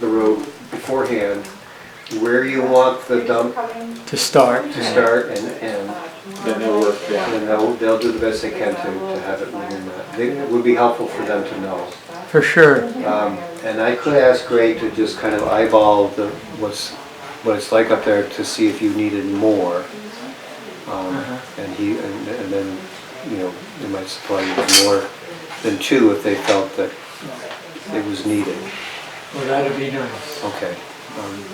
the road beforehand, where you want the dump to start. to start and end. Then they'll work, yeah. And they'll, they'll do the best they can to, to have it within that. They- It would be helpful for them to know. For sure. Um, And I could ask Ray to just kind of eyeball the, what's, what it's like up there to see if you needed more. Um, And he, and and then, you know, they might supply you with more than two if they felt that it was needed. Well, that'd be nice. Okay, um,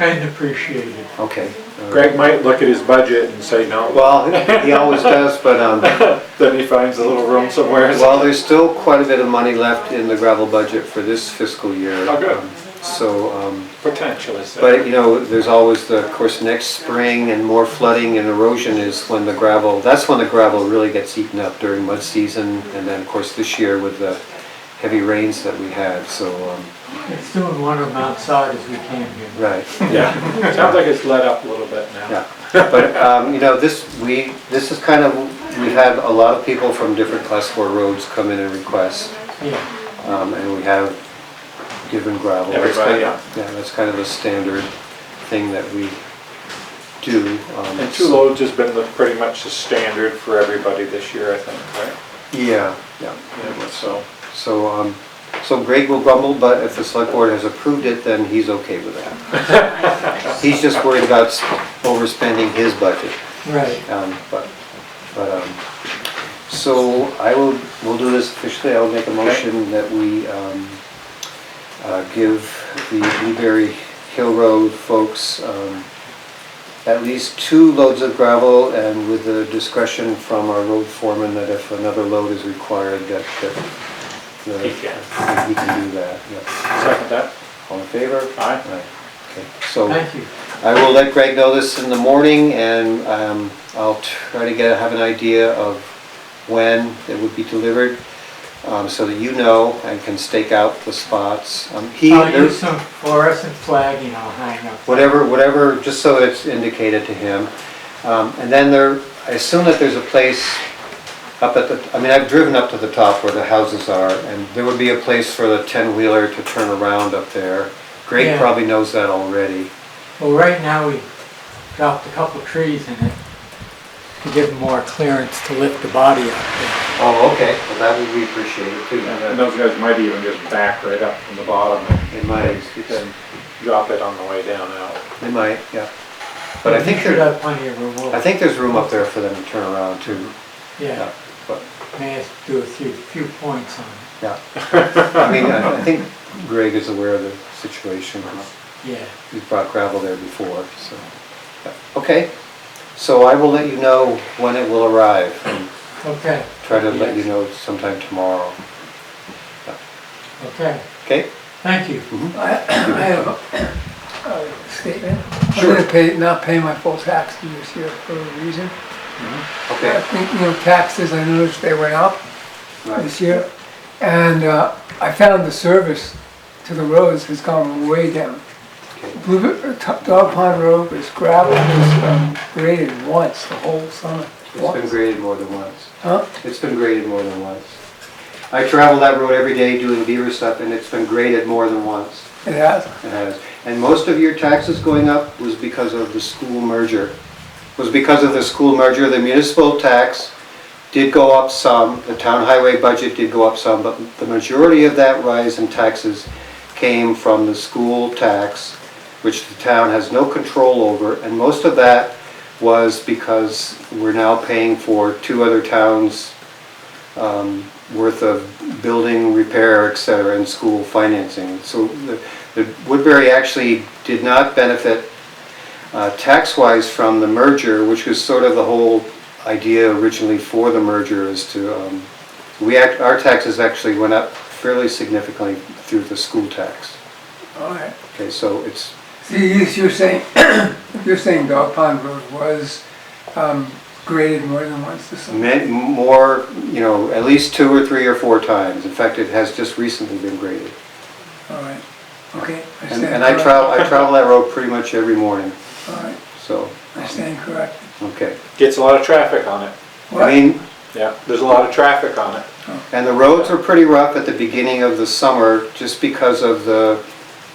And appreciated. okay. all right. Greg might look at his budget and say no, Well, he always does, but, um, then he finds a little room somewhere. well, there's still quite a bit of money left in the gravel budget for this fiscal year. Oh, good. Um, So, um, Potential is But, there. you know, there's always the, of course, next spring and more flooding and erosion is when the gravel, that's when the gravel really gets eaten up during mud season. And then, of course, this year with the heavy rains that we had, so, um, It's doing one of them outside as we came here. right, Yeah, sounds like it's let up a little bit now. yeah. But, um, you know, this, we, this is kind of, we've had a lot of people from different class four roads come in and request. Yeah. Um, and we have given gravel. That's Everybody, kind- Yeah, that's kind of a standard thing that we do. um, And two loads has been the, pretty much the standard for everybody this year, I think, Yeah, yeah. right? Yeah, so, So, um, so Greg will grumble, but if the select board has approved it, then he's okay with that. He's just worried about s- overspending his budget, Right. um, but, but, um, so I will, we'll do this officially, I will make a motion that we, um, uh, give the Blueberry Hill Road folks, um, at least two loads of gravel and with the discretion from our road foreman that if another load is required, that, that the- He can. He can do that, yeah. second that, All in favor? aye? Aye. Okay, so Thank you. I will let Greg know this in the morning and um, I'll try to get, have an idea of when it would be delivered um, so that you know and can stake out the spots. Um, He, I'll use some fluorescent flagging I'll hang up. whatever, whatever, just so it's indicated to him. Um, And then there, I assume that there's a place up at the, I mean, I've driven up to the top where the houses are, and there would be a place for the ten-wheeler to turn around up there. Greg Yeah. probably knows that already. Well, right now, we dropped a couple trees in it to give more clearance to lift the body up there. Oh, okay, well, that would be appreciated too. And those guys might even just back right up from the bottom and They might, then drop it on the way down out. they might, yeah. But I We think should there, have plenty of room. I think there's room up there for them to turn around too. Yeah, But, may have to do a few, few points on it. yeah. I mean, I I think Greg is aware of the situation. Yeah. We've brought gravel there before, so. Okay, so I will let you know when it will arrive. and Okay, Try to let you know sometime tomorrow. okay. Okay? Thank you. I have a- a statement. I'm gonna pay, not pay my full taxes this year for a reason. I Okay. think, you know, taxes, I noticed they went up Right. this year. And uh, I found the service to the roads has gone way down. Okay. Blue- uh, T- Dog Pond Road was gravel, it was um, graded once the whole summer. It's been Once. graded more than once. Huh? It's been graded more than once. I travel that road every day doing beaver stuff and it's been graded more than once. It has. It has. And most of your taxes going up was because of the school merger. Was because of the school merger, the municipal tax did go up some, the town highway budget did go up some, but the majority of that rise in taxes came from the school tax, which the town has no control over, and most of that was because we're now paying for two other towns' um, worth of building, repair, et cetera, and school financing. So the the Woodbury actually did not benefit uh, tax-wise from the merger, which was sort of the whole idea originally for the merger is to, um, we, act- our taxes actually went up fairly significantly through the school tax. All right. Okay, so it's, See, you- you're saying, you're saying Dog Pond Road was um, graded more than once this summer. meant more, you know, at least two or three or four times. In fact, it has just recently been graded. All right, okay. And stand and I corrected. travel, I travel that road pretty much every morning, All right, so, I stand corrected. okay. Gets a lot of traffic on it, What? I mean, yeah, there's a lot of traffic on it. And the roads were pretty rough at the beginning of the summer, just because of the